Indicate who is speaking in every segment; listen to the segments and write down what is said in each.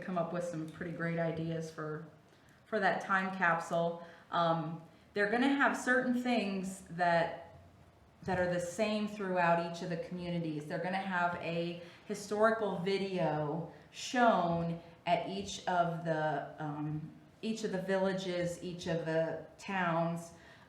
Speaker 1: come up with some pretty great ideas for, for that time capsule. Um, they're gonna have certain things that, that are the same throughout each of the communities. They're gonna have a historical video shown at each of the, um, each of the villages, each of the towns.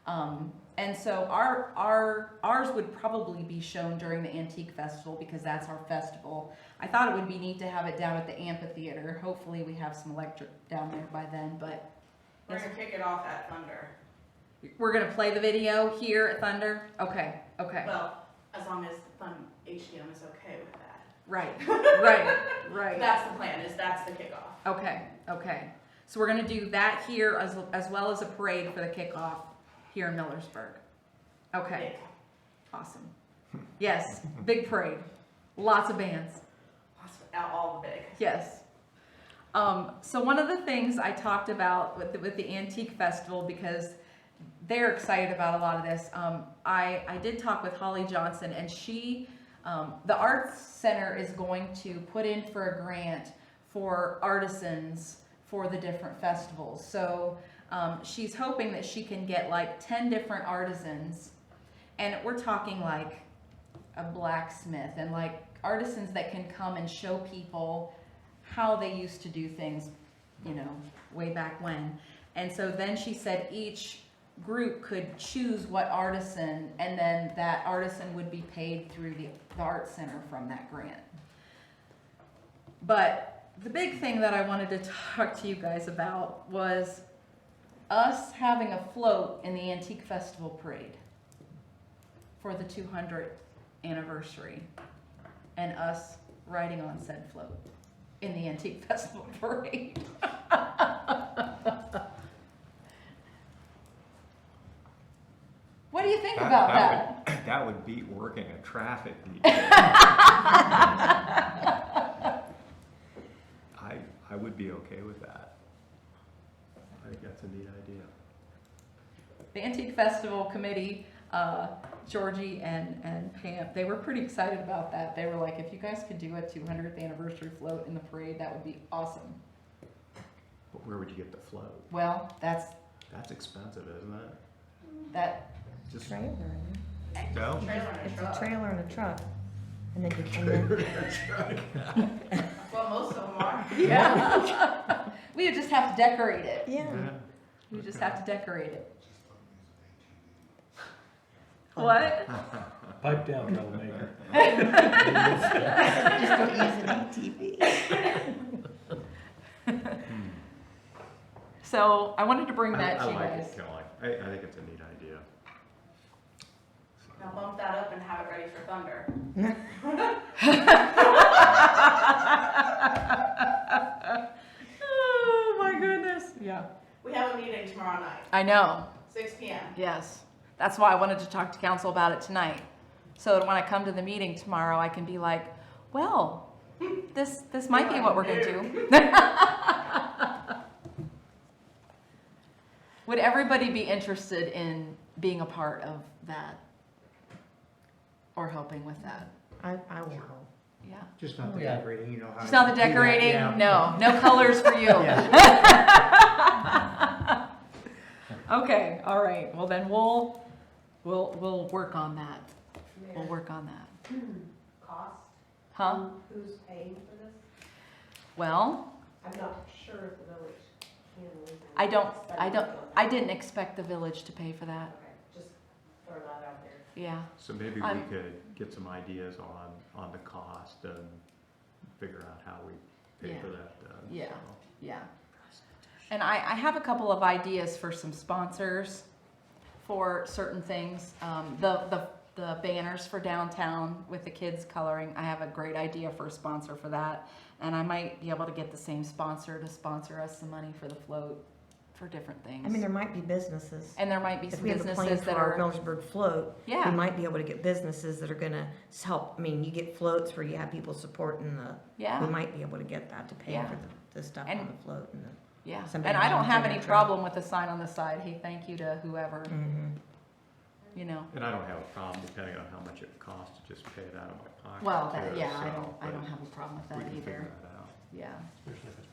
Speaker 1: Um, and so our, our, ours would probably be shown during the Antique Festival because that's our festival. I thought it would be neat to have it down at the amphitheater. Hopefully we have some electric down there by then, but
Speaker 2: We're gonna kick it off at Thunder.
Speaker 1: we're gonna play the video here at Thunder? Okay, okay,
Speaker 2: Well, as long as the fun HDM is okay with that.
Speaker 1: right, right, right.
Speaker 2: That's the plan, is that's the kickoff.
Speaker 1: Okay, okay. So we're gonna do that here as, as well as a parade for the kickoff here in Millersburg. Okay,
Speaker 2: Yeah.
Speaker 1: awesome. Yes, big parade, lots of bands.
Speaker 2: That's out all the big.
Speaker 1: Yes. Um, so one of the things I talked about with the, with the antique festival because they're excited about a lot of this. Um, I I did talk with Holly Johnson and she um, the arts center is going to put in for a grant for artisans for the different festivals. So um, she's hoping that she can get like ten different artisans, and we're talking like a blacksmith and like artisans that can come and show people how they used to do things, you know, way back when. And so then she said each group could choose what artisan, and then that artisan would be paid through the, the art center from that grant. But the big thing that I wanted to talk to you guys about was us having a float in the Antique Festival Parade for the 200th anniversary and us riding on said float in the Antique Festival Parade. what do you think about that?
Speaker 3: That would- that would beat working a traffic detail. I, I would be okay with that. I think that's a neat idea.
Speaker 1: the Antique Festival Committee, uh, Georgie and, and Pam, they were pretty excited about that. They were like, if you guys could do a 200th anniversary float in the parade, that would be awesome.
Speaker 3: But where would you get the float?
Speaker 1: Well, that's,
Speaker 3: That's expensive, isn't it?
Speaker 1: that,
Speaker 3: Just,
Speaker 4: Trailer, isn't it?
Speaker 3: no?
Speaker 2: Trailer on a
Speaker 4: it's
Speaker 2: truck.
Speaker 4: a trailer and a truck, and then you can, and then-
Speaker 2: Well, most of them are.
Speaker 1: yeah. We would just have to decorate it.
Speaker 4: yeah.
Speaker 3: Yeah.
Speaker 1: We would just have to decorate it. What?
Speaker 5: Pipe down, troublemaker.
Speaker 4: Just don't use an ATV.
Speaker 1: So I wanted to bring
Speaker 3: I
Speaker 1: that
Speaker 3: I
Speaker 1: to you
Speaker 3: like
Speaker 1: guys.
Speaker 3: it, Kelly. I, I think it's a neat idea.
Speaker 2: Now bump that up and have it ready for Thunder.
Speaker 1: Oh, my goodness. Yeah.
Speaker 2: We have a meeting tomorrow night,
Speaker 1: I know.
Speaker 2: six P M.
Speaker 1: Yes, that's why I wanted to talk to council about it tonight. So that when I come to the meeting tomorrow, I can be like, well, this, this might be what we're gonna do. Would everybody be interested in being a part of that? Or helping with that?
Speaker 4: I, I will help.
Speaker 1: Yeah.
Speaker 6: Just not the
Speaker 5: Yeah.
Speaker 6: decorating, you know how.
Speaker 1: It's not the
Speaker 6: to do that,
Speaker 1: decorating?
Speaker 6: yeah.
Speaker 1: No, no colors for you.
Speaker 6: Yeah.
Speaker 1: Okay, all right. Well, then we'll, we'll, we'll work on that. We'll work on that.
Speaker 7: cost?
Speaker 1: Huh?
Speaker 7: Who's paying for this?
Speaker 1: Well,
Speaker 7: I'm not sure if the village can. or isn't.
Speaker 1: I don't, I don't, I
Speaker 7: Okay,
Speaker 1: didn't expect the village to pay for that.
Speaker 7: just throw that out there.
Speaker 1: Yeah,
Speaker 3: So maybe we
Speaker 1: I'm-
Speaker 3: could get some ideas on, on the cost and figure out how we pay
Speaker 1: Yeah.
Speaker 3: for that. uh,
Speaker 1: Yeah.
Speaker 3: so.
Speaker 1: yeah. And I, I have a couple of ideas for some sponsors for certain things. Um, the, the, the banners for downtown with the kids coloring, I have a great idea for a sponsor for that. And I might be able to get the same sponsor to sponsor us some money for the float for different
Speaker 4: I mean,
Speaker 1: things.
Speaker 4: there might be businesses.
Speaker 1: And there might be
Speaker 4: If
Speaker 1: some
Speaker 4: we have a plan
Speaker 1: businesses
Speaker 4: for
Speaker 1: that
Speaker 4: our
Speaker 1: are,
Speaker 4: Millersburg float, we
Speaker 1: yeah,
Speaker 4: might be able to get businesses that are gonna s- help, I mean, you get floats where you have people supporting the, we
Speaker 1: yeah,
Speaker 4: might be able to get that to pay
Speaker 1: Yeah.
Speaker 4: for the, the stuff
Speaker 1: And-
Speaker 4: on the float and
Speaker 1: yeah. And
Speaker 4: somebody
Speaker 1: I don't have
Speaker 4: volunteer
Speaker 1: any
Speaker 4: to-
Speaker 1: problem with a sign on the side, hey, thank you to whoever,
Speaker 4: the. Mhm.
Speaker 1: you know.
Speaker 3: And I don't have a problem, depending on how much it costs, to just pay it out of my pocket.
Speaker 1: Well, that,
Speaker 3: too,
Speaker 1: yeah, I
Speaker 3: so,
Speaker 1: don't, I
Speaker 3: but
Speaker 1: don't have a problem with
Speaker 3: We
Speaker 1: that
Speaker 3: can
Speaker 1: either,
Speaker 3: figure that out.
Speaker 1: yeah.
Speaker 6: Especially if it's